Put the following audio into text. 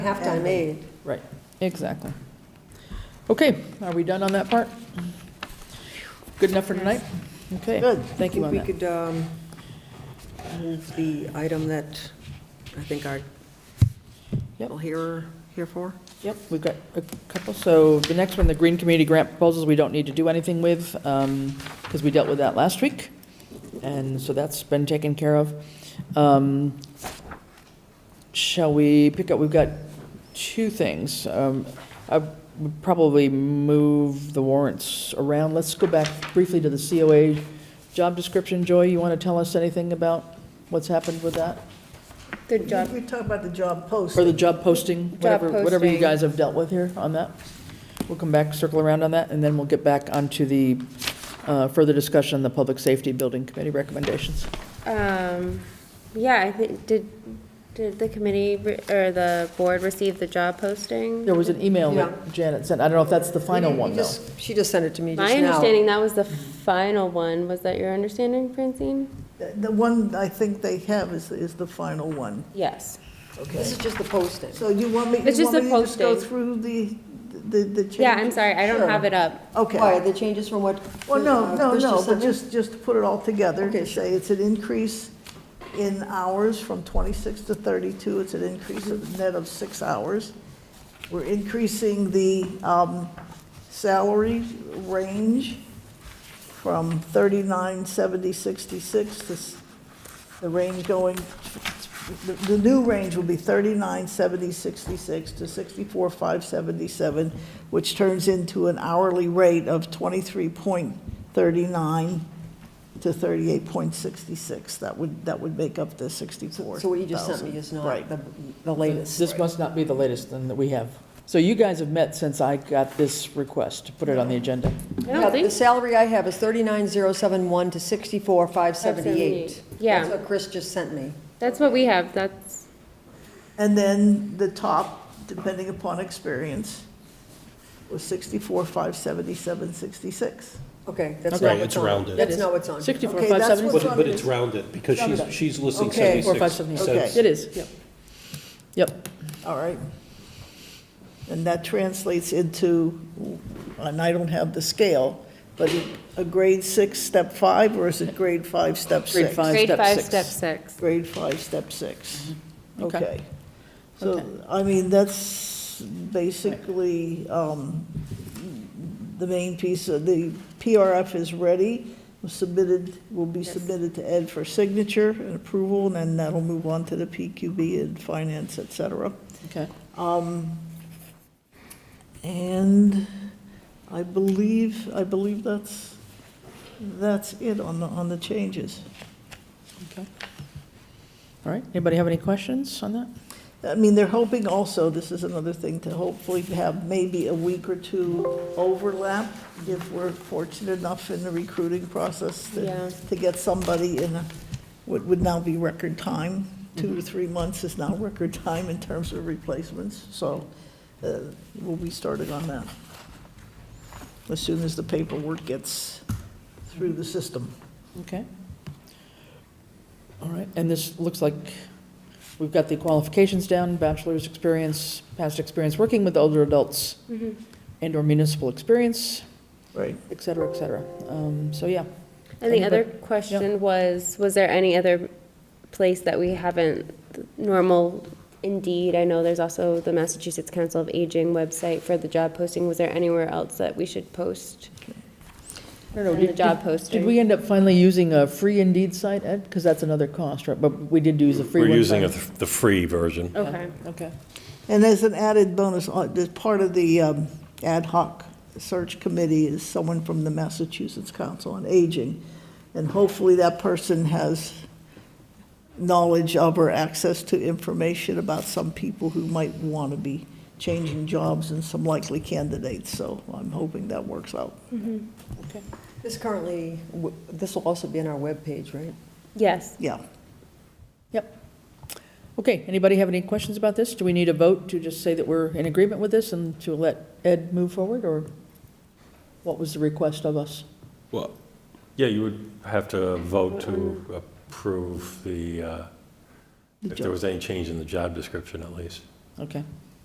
Halftime aid. Right, exactly. Okay, are we done on that part? Good enough for tonight? Okay. Good. Thank you I on think we that. could um, move the item that I think our Yep. people here, here for. Yep, we've got a couple. So the next one, the Green Community Grant proposals, we don't need to do anything with, because we dealt with that last week. And so that's been taken care of. Um, Shall we pick up, we've got two things. Um, I would probably move the warrants around. Let's go back briefly to the COA job description. Joy, you want to tell us anything about what's happened with that? Good job. We talk about the job Or post. the job posting, whatever, whatever you posting. guys have dealt with here on that. We'll come back, circle around on that, and then we'll get back onto the uh, further discussion on the Public Safety Building Committee recommendations. Um, yeah, I think, did, did the committee re- or the board receive the job posting? There was an email that Janet sent, I don't know if that's the final We- we one, though. just- She just sent it to me just My now. understanding, that was the final one. Was that your understanding, Francine? The the one I think they have is, is the final one. Yes. This is just the posting. So you want me, It's you just want me the to just go posting. through the, the, the changes? Yeah, I'm sorry, I don't have it up. Why, Okay. the changes from what? Well, no, uh, no, Chris no, but sent just, just to put it all together, Okay, to say it's an increase in hours from 26 to 32, it's an increase of net of six hours. We're increasing the um, salary range from 39,7066 to, s- the range going, the the new range will be 39,7066 to 64,577, which turns into an hourly rate of 23.39 to 38.66. That would, that would make up the 64,000. So what you just sent me is not Right. the the latest. This must not be the latest one that we have. So you guys have met since I got this request to put it on the agenda. I Yeah, don't The think, salary I have is 39,071 to 64,578. 578. Yeah. That's what Chris just sent me. that's what we have, that's, And then the top, depending upon experience, was 64,577, 66. Okay, that's Okay. not Right, what's it's on. rounded. That's not what's on. 64, Okay, that's 570? what's But, but it's rounded, because she's, she's listing Okay. Four, five, 76 seven, cents. eight. Okay. It is, yep. Yep, All right. And that translates into, and I don't have the scale, but a grade six, step five, or is it grade five, step six? Grade five. grade step five, six. step six. Grade five, step six. Mm-hmm. Okay. Okay. Okay. So, I mean, that's basically um, the main piece. of The PRF is ready, was submitted, will be submitted to Ed for signature and approval, and then that'll move on to the PQB and finance, et cetera. okay. Um, And I believe, I believe that's, that's it on the, on the changes. okay. All right, anybody have any questions on that? I mean, they're hoping also, this is another thing, to hopefully have maybe a week or two overlap if we're fortunate enough in the recruiting process Yeah. to, to get somebody in a- what would now be record time. Two to three months is now record time in terms of replacements, so uh, we'll be starting on that as soon as the paperwork gets through the system. Okay. All right, and this looks like we've got the qualifications down, bachelor's experience, past experience working with older adults, and/or municipal experience, Right. et cetera, et cetera. Um, So, yeah, And the other Anybody- question was, was there any other place that we haven't, normal Indeed, I know there's also the Massachusetts Council of Aging website for the job posting, was there anywhere else that we should post? I don't know. On did- the job did- posting. Did we end up finally using a free Indeed site, Ed? Because that's another cost, right? But we did use a free We're one. using time. the free version. Yeah, Okay, Okay, And as an added bonus, uh, as part of the um, ad hoc search committee is someone from the Massachusetts Council on Aging. And hopefully that person has knowledge of or access to information about some people who might want to be changing jobs and some likely candidates. So I'm hoping that works out. okay. This currently, w- this will also be on our webpage, right? yes. Yeah. Yep. Okay, anybody have any questions about this? Do we need a vote to just say that we're in agreement with this and to let Ed move forward, or what was the request of us? Well, yeah, you would have to vote to approve the, uh, The if there job. was any change in the job description at least. Okay,